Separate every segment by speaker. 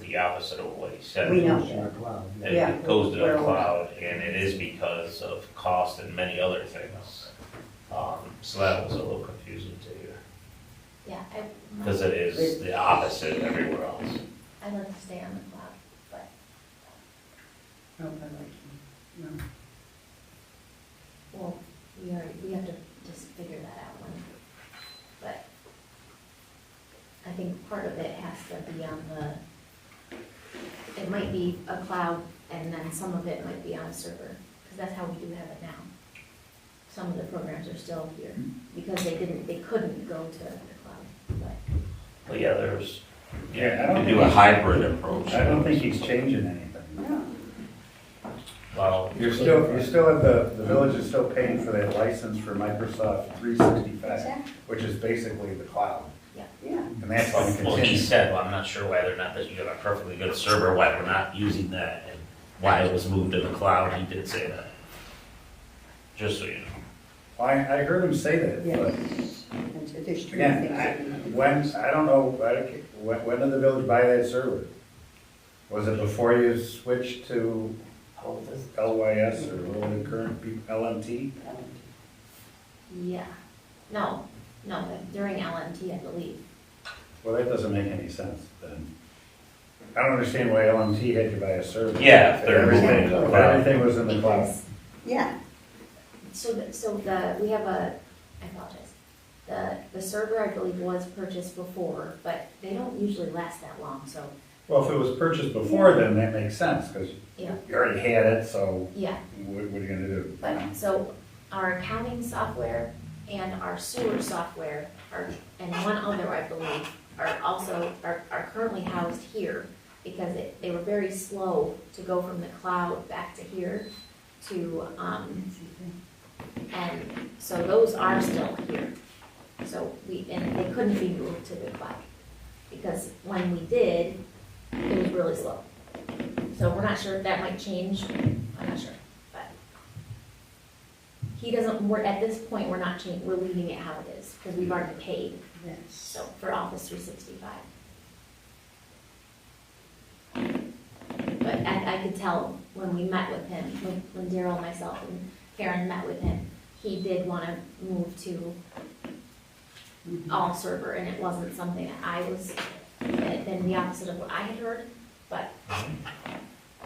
Speaker 1: the opposite of what he said.
Speaker 2: We know.
Speaker 3: It's in the cloud, yeah.
Speaker 1: It-
Speaker 2: Yeah.
Speaker 1: It goes to
Speaker 2: We're
Speaker 1: the
Speaker 2: aware.
Speaker 1: cloud, and it is because of cost and many other things. Um, so that was a little confusing to you,
Speaker 4: Yeah, I,
Speaker 1: because it is the opposite everywhere else.
Speaker 4: I like to stay on the cloud, but
Speaker 2: Oh, I like you. No.
Speaker 4: well, we are, we have to just figure that out when. But I think part of it has to be on the, it might be a cloud and then some of it might be on a server, because that's how we do have it now. Some of the programs are still here because they didn't, they couldn't go to the cloud, but
Speaker 1: But yeah, there's,
Speaker 3: Yeah, I
Speaker 1: yeah,
Speaker 3: don't
Speaker 1: you do a
Speaker 3: think-
Speaker 1: hybrid approach.
Speaker 3: I don't think he's changing anything.
Speaker 2: No.
Speaker 1: Well,
Speaker 5: You're still, you're still at the, the village is still paying for that license for Microsoft three sixty-five,
Speaker 2: Exactly.
Speaker 5: which is basically the cloud,
Speaker 2: Yeah,
Speaker 5: and that's going to
Speaker 1: well, he
Speaker 5: continue.
Speaker 1: said, well, I'm not sure why they're not, that you have a perfectly good server, why we're not using that, and why it was moved to the cloud, he did say that. Just so you know.
Speaker 5: I, I heard him say that,
Speaker 2: yeah.
Speaker 5: but
Speaker 2: There's two things.
Speaker 5: again, I,
Speaker 2: that we know.
Speaker 5: when, I don't know, I don't ca- when, when did the village buy that server? Was it before you switched to LYS or what the current be- LMT?
Speaker 4: yeah. No, no, during LMT, I believe.
Speaker 5: Well, that doesn't make any sense then. I don't understand why LMT had to buy a server.
Speaker 1: Yeah, if they're
Speaker 5: Everything,
Speaker 1: moving to the cloud.
Speaker 5: everything was in the cloud.
Speaker 4: Because-
Speaker 2: Yeah,
Speaker 4: So, the- so the, we have a, I apologize. The, the server, I believe, was purchased before, but they don't usually last that long, so,
Speaker 5: Well, if it was purchased before then, that makes sense, because
Speaker 4: Yeah.
Speaker 5: you already had it, so
Speaker 4: yeah.
Speaker 5: what, what are you gonna do?
Speaker 4: But, so our accounting software and our sewer software are, and one other, I believe, are also, are, are currently housed here because it, they were very slow to go from the cloud back to here to, um, And so those are still here. So we, and they couldn't be moved to the cloud. Because when we did, it was really slow. So we're not sure if that might change, I'm not sure, but. He doesn't, we're, at this point, we're not changing, we're leaving it how it is, because we've already paid,
Speaker 2: yes.
Speaker 4: so, for Office three sixty-five. But I, I could tell when we met with him, when- when Daryl, myself, and Karen met with him, he did wanna move to all server, and it wasn't something that I was, that had been the opposite of what I had heard, but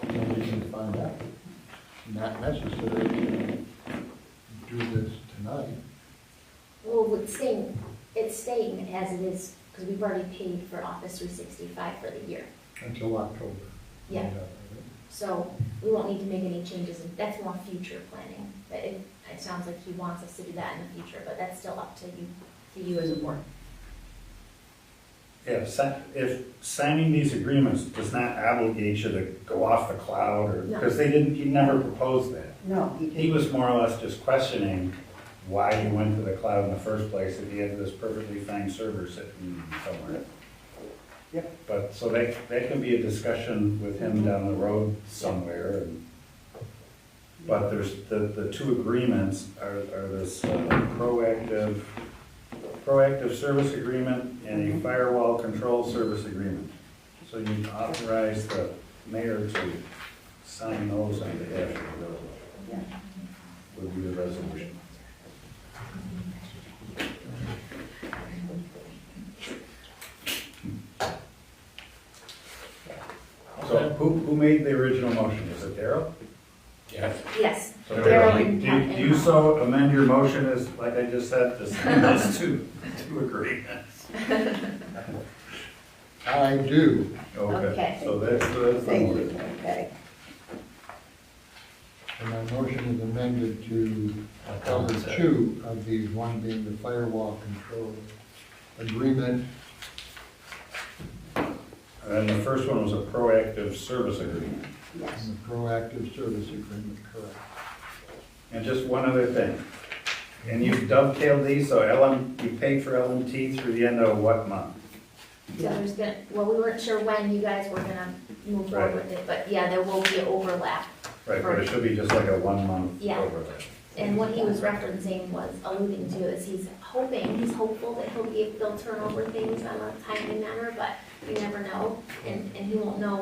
Speaker 3: And we can find out. Not necessary to do this tonight.
Speaker 4: Well, it's staying, it's staying as it is, because we've already paid for Office three sixty-five for the year.
Speaker 3: Until October.
Speaker 4: Yeah. So we won't need to make any changes, and that's more future planning. But it, it sounds like he wants us to do that in the future, but that's still up to you, to you as a board.
Speaker 5: Yeah, si- if signing these agreements does not obligate you to go off the cloud or,
Speaker 4: No.
Speaker 5: because they didn't, he never proposed that.
Speaker 2: No, he
Speaker 5: He
Speaker 2: didn't.
Speaker 5: was more or less just questioning why you went to the cloud in the first place if you had this perfectly fine server sitting somewhere.
Speaker 2: Yep.
Speaker 5: But, so that, that can be a discussion with him down the road somewhere and, but there's, the, the two agreements are, are this uh, proactive, proactive service agreement and a firewall control service agreement. So you authorize the mayor to sign those on behalf of the village
Speaker 2: Yeah.
Speaker 5: would be the resolution. So who, who made the original motion? Was it Daryl?
Speaker 4: Yes,
Speaker 5: So
Speaker 4: Daryl
Speaker 5: Do
Speaker 4: and-
Speaker 5: you- do you so amend your motion as, like I just said, to send those two, two agreements?
Speaker 3: I do.
Speaker 4: Okay.
Speaker 5: So that's, that's the
Speaker 2: Thank you,
Speaker 5: order.
Speaker 2: okay.
Speaker 3: And my motion is amended to
Speaker 1: Like
Speaker 3: cover
Speaker 1: Colin said.
Speaker 3: two of these, one being the firewall control agreement.
Speaker 5: And then the first one was a proactive service agreement.
Speaker 2: Yes.
Speaker 3: And the proactive service agreement, correct.
Speaker 5: And just one other thing. And you dovetailed these, so LM, you paid for LMT through the end of what month?
Speaker 4: so there's gonna, well, we weren't sure when you guys were gonna move forward with it, but yeah, there will be overlap.
Speaker 5: Right, but it should be just like a one month
Speaker 4: Yeah.
Speaker 5: overlay.
Speaker 4: And what he was referencing was alluding to is he's hoping, he's hopeful that he'll be, they'll turn over things on a timely manner, but you never know. And, and he won't know